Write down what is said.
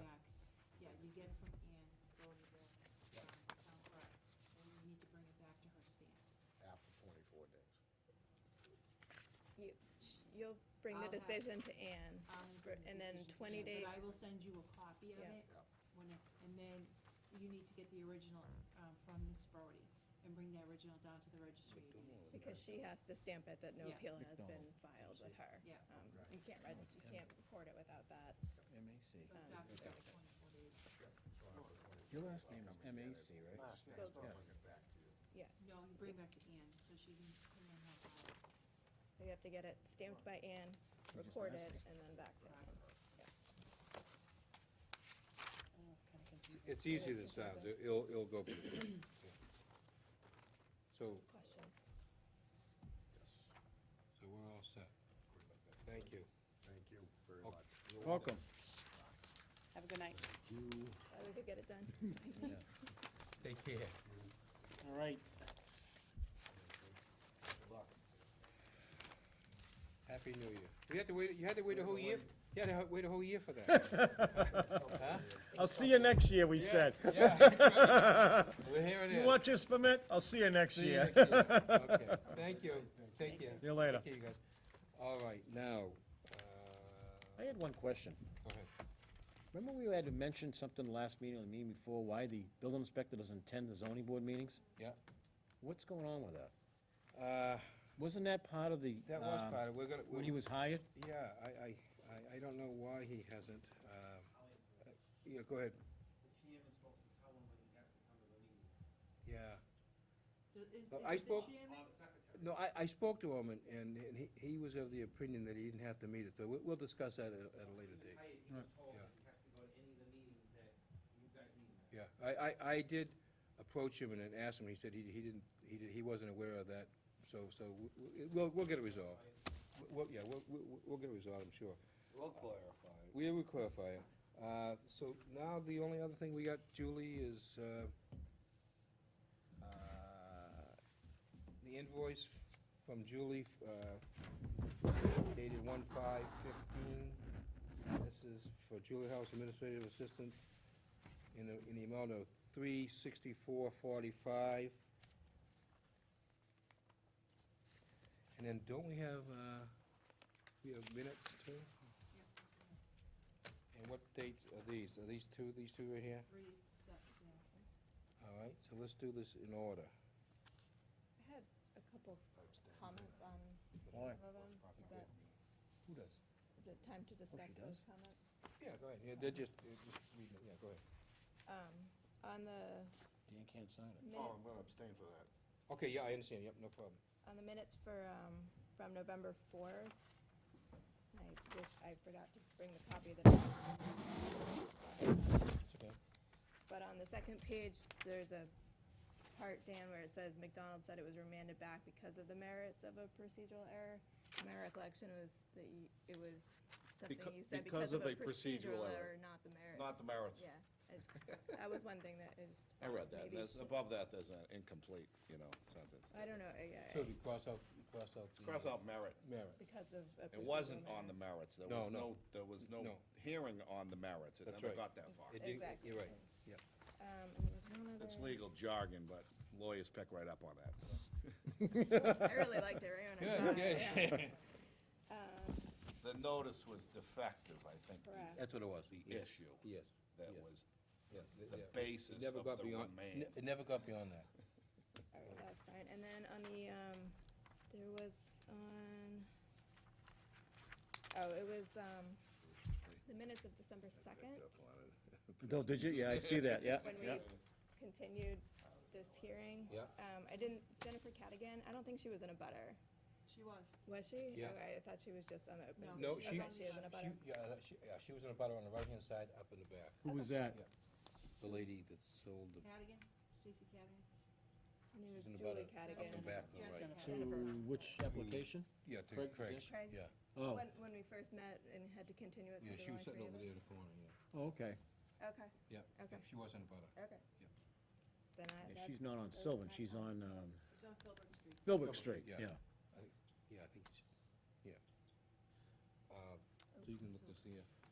Um, you, sh- you'll bring the I'll have- decision to Ann. I'll bring for- the And then decision to twenty you, day, But I will send you a copy of Yeah. it, Yeah. when it, and then you need to get the original, um, from Ms. Brody, and bring the original down to the registry of deeds. because she has to stamp it that no Yeah. appeal has been filed with her. Yeah. Um, Right. You can't, reg- you can't record it without that. So MAC. it's after the twenty-four days. Your last name is MAC, right? Last name, Go- I'll get back to you. Yeah, No, you bring back to Ann, so she can, and then have all of it. so you have to get it stamped by Ann, just recorded, asked. and then back to Ann. Yeah. It's easier than it sounds, It- it'll, it'll go pretty quick. So, Questions? so we're all set, Sorry about that. thank you. Thank you very Okay. much. Welcome. Have a good night. You, Glad we could get it done. Take care. All right, good luck. Happy New Year. You had to wait, you had to wait a whole year, you had to ho- wait a whole year for that. Huh? I'll see you next year, we said. Yeah, that's right. Well, here it You is. want your permit? I'll see you next See you year. next year. Okay, thank you, thank you. See you later. Thank you, guys. All right, now, uh, I had one question. go ahead. Remember we had to mention something last meeting, or the meeting before, why the building inspector doesn't attend the zoning board meetings? Yeah, What's going on with that? uh, Wasn't that part of the, that was um, part of, we're gonna. when he was hired? Yeah, I, I, I, I don't know why he hasn't, um, uh, yeah, go ahead, The chairman's supposed to tell him when he has to come to the meeting. yeah. Is, is Well, Uh, I it the spoke- Uh, chairman? Or the secretary. No, I, I spoke to him, and, and and he, he was of the opinion that he didn't have to meet it, so we'll, we'll discuss that at, a- at a later He was date. hired, He was told Yeah. that he has to go to any of the meetings that you guys meet. at. Yeah, I, I, I did approach him and then ask him, he said he, he didn't, he did, he wasn't aware of that, so, so, w- w- we'll, we'll get it resolved. W- We'll, yeah, we'll, we'll, we'll get it resolved, I'm sure. We'll clarify. We will clarify it. Uh, So now the only other thing we got, Julie, is uh, uh, the invoice from Julie uh, dated one five fifteen. This is for Julie House Administrative Assistant in the, in the amount of three sixty-four forty-five. And then don't we have, uh, we have minutes too? And what dates are these? Are these two, these two right here? Three steps, yeah. All right, so let's do this in order. I had a couple Abstain. comments on All some right. of them. Is that, Oh, Who does? is it time to discuss those Oh, does? comments? Yeah, go ahead. Yeah, they're just, they're just reading it. Yeah, go ahead. Um, on the Dan can't sign it. minute, Oh, I'm gonna abstain for that. Okay, yeah, I understand. Yep, no problem. on the minutes for, um, from November fourth, I wish, I forgot to bring the copy of the document. It's okay. But on the second page, there's a part, Dan, where it says McDonald said it was remanded back because of the merits of a procedural error. My recollection was that you, it was something Becau- you said because of a procedural error, not the merits. Not the merits. Yeah, I just- that was one thing that is. I read that, maybe there's, should- above that, there's an incomplete, you know, sentence. I don't know, I- I- So we cross out, we cross out the. uh, Cross out merit. Merit. because of a It wasn't procedural on the error. merits, there No, was no. no, there was no No. hearing on the merits, it That's never right. got that far. It did- Exactly. You're right. Yep. Um, and there was one other. It's legal jargon, but lawyers pick right up on that. I really liked it right when I saw it, yeah. Um, The notice was defective, I think, the- Correct. That's what it was. the Yes. issue Yes. that yes, was yeah, th- the yeah. basis It of never got the beyond, remain. ne- it never got beyond that. All right, that's fine. And then on the, um, there was on, oh, it was, um, the minutes of December second, No, did you? Yeah, I see that, yeah, when we yeah. continued this hearing. Yeah. Um, I didn't, Jennifer Cadigan, I don't think she was in a butter. She was. Was she? Yes. Okay, I thought she was just on the open. session. No, she, Okay, Oh, she is in a butter. she- yeah, uh, she, yeah, she was in a butter on the right-hand side, up in the back. Who was that? The lady that sold the, Cadigan, Stacy Cadigan? Her name was she's in a Julie butter. Cadigan. Come back to the right. Jennifer. To which application? yeah, to Craig, Craig's, Craig's. yeah. Oh, When, when we first met and had to continue it. Yeah, 'cause she there were only was sitting over three there of in the corner, yeah. oh, okay. us. Okay, Yeah, Okay. she was in a butter. okay. Yeah. Then I, Yeah, that's. She's not on that's Sylvan, my she's fault. on, um, She's on Philbrook Street. Philbrook Street, yeah. yeah. Yeah, I think, it's- yeah. Uh, So you can look this here.